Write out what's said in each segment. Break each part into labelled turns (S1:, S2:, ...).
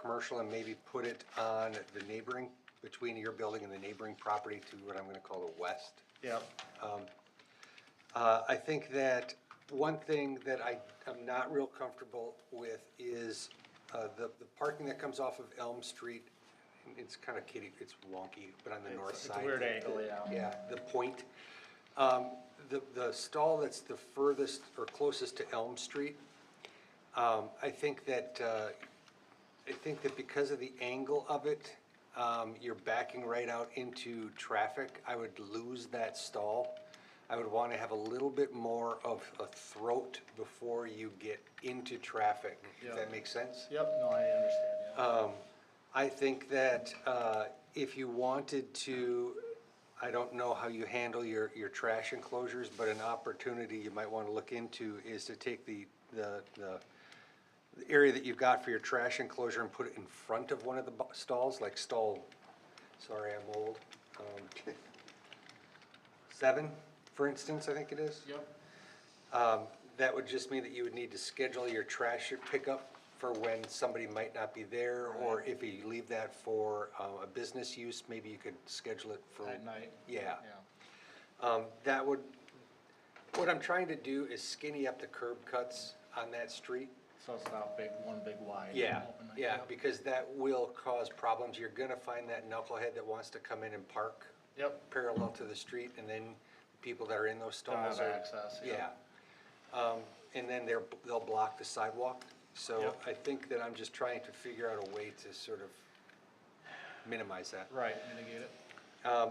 S1: commercial and maybe put it on the neighboring, between your building and the neighboring property to what I'm gonna call the west.
S2: Yeah,
S1: Uh, I think that one thing that I am not real comfortable with is uh, the, the parking that comes off of Elm Street. It's kind of kitty, it's wonky, but on the
S2: It's-
S1: north
S2: it's a
S1: side.
S2: weird angle, yeah.
S1: Yeah, the point. Um, The, the stall that's the furthest or closest to Elm Street, um, I think that, uh, I think that because of the angle of it, um, you're backing right out into traffic. I would lose that stall. I would want to have a little bit more of a throat before you get into traffic. Does that
S2: Yeah.
S1: make sense?
S2: yep, no, I understand, yeah.
S1: Um, I think that uh, if you wanted to, I don't know how you handle your, your trash enclosures, but an opportunity you might want to look into is to take the, the, the the area that you've got for your trash enclosure and put it in front of one of the bu- stalls, like stall, sorry, I'm old. um, Seven, for instance, I think it is.
S2: Yep,
S1: Um, That would just mean that you would need to schedule your trash pickup for when somebody might not be there, or if you leave that for uh, a business use, maybe you could schedule it for.
S2: at night.
S1: Yeah.
S2: Yeah,
S1: Um, That would, what I'm trying to do is skinny up the curb cuts on that street.
S2: so it's not big, one big wide.
S1: Yeah,
S2: open like
S1: yeah,
S2: that.
S1: because that will cause problems. You're gonna find that knucklehead that wants to come in and park
S2: Yep,
S1: parallel to the street, and then people that are in those
S2: Don't have
S1: stalls are.
S2: access, yeah.
S1: Yeah. Um, and then they're, they'll block the sidewalk, so
S2: Yep.
S1: I think that I'm just trying to figure out a way to sort of minimize that.
S2: right, mitigate it.
S1: Um,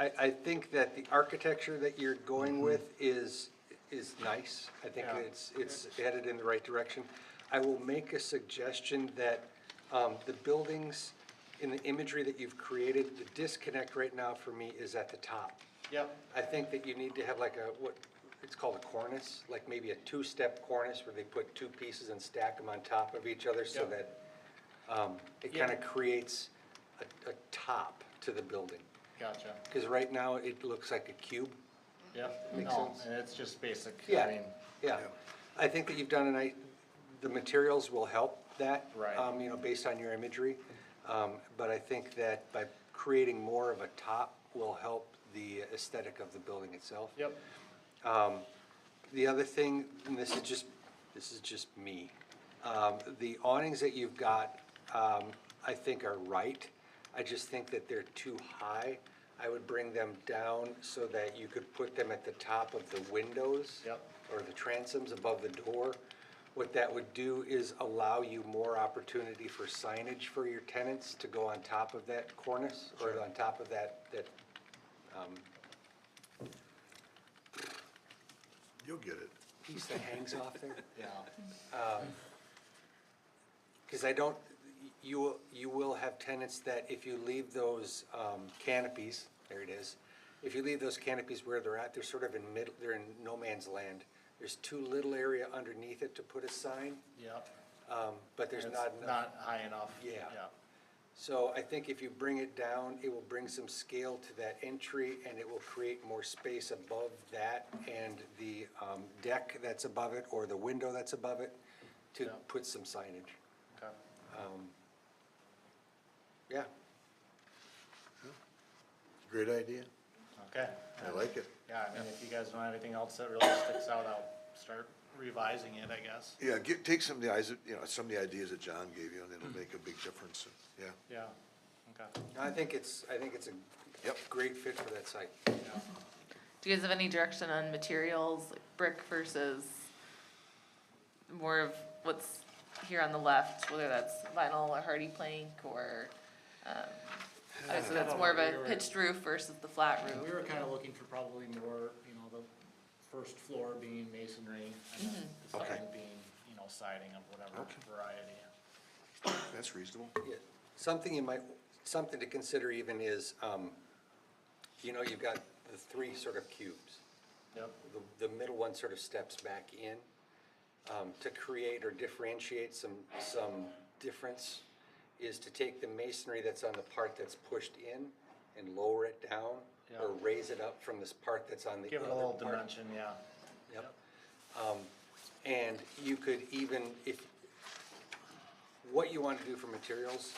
S1: I, I think that the architecture that you're going with is, is nice. I think
S2: Mm-hmm. Yeah.
S1: it's, it's headed in the right direction. I will make a suggestion that, um, the buildings in the imagery that you've created, the disconnect right now for me is at the top.
S2: Yep,
S1: I think that you need to have like a, what, it's called a cornice, like maybe a two-step cornice where they put two pieces and stack them on top of each other so
S2: Yep.
S1: that, um, it
S2: Yeah.
S1: kind of creates a, a top to the building.
S2: gotcha,
S1: Because right now, it looks like a cube.
S2: yep,
S1: Makes
S2: no,
S1: sense.
S2: and it's just basic, I
S1: Yeah,
S2: mean,
S1: yeah. I think that you've done a nice, the materials will help that.
S2: Right.
S1: um, You know, based on your imagery. Um, But I think that by creating more of a top will help the aesthetic of the building itself.
S2: yep,
S1: Um, The other thing, and this is just, this is just me, um, the awnings that you've got, um, I think are right. I just think that they're too high. I would bring them down so that you could put them at the top of the windows.
S2: Yep.
S1: Or the transoms above the door. What that would do is allow you more opportunity for signage for your tenants to go on top of that cornice or on top of that, that
S3: You'll get it.
S1: piece that hangs off there.
S2: yeah,
S1: Because I don't, you, will- you will have tenants that if you leave those um, canopies, there it is, if you leave those canopies where they're at, they're sort of in mid, they're in no man's land. There's too little area underneath it to put a sign,
S2: yep.
S1: um, but there's
S2: It's
S1: not enough.
S2: Not high enough.
S1: Yeah.
S2: Yeah,
S1: So I think if you bring it down, it will bring some scale to that entry and it will create more space above that and the um, deck that's above it or the window that's above it to
S2: Yeah.
S1: put some signage.
S2: okay,
S1: Yeah,
S3: Great idea.
S2: okay.
S3: I like it.
S2: Yeah, I mean, if you guys don't have anything else that really sticks out, I'll start revising it, I guess.
S3: Yeah, get, take some of the eyes, you know, some of the ideas that John gave you, and it'll make a big difference, yeah.
S2: Yeah, okay.
S1: I think it's, I think it's a
S3: Yep.
S1: great fit for that site.
S4: Do you guys have any direction on materials, like brick versus more of what's here on the left, whether that's vinyl or hardy plank or, um, so that's more of a pitched roof versus the flat
S2: And we
S4: roof?
S2: were kind of looking for probably more, you know, the first floor being masonry and then the
S3: Okay.
S2: second being, you know, siding of whatever
S3: Okay.
S2: variety.
S3: That's reasonable.
S1: Yeah. Something you might, something to consider even is, um, you know, you've got the three sort of cubes.
S2: Yep,
S1: The, the middle one sort of steps back in, um, to create or differentiate some, some difference is to take the masonry that's on the part that's pushed in and lower it down or
S2: Yeah.
S1: raise it up from this part that's on the
S2: give
S1: other
S2: it
S1: part.
S2: a little dimension, yeah.
S1: Yep. Um, And you could even, if, what you want to do for materials,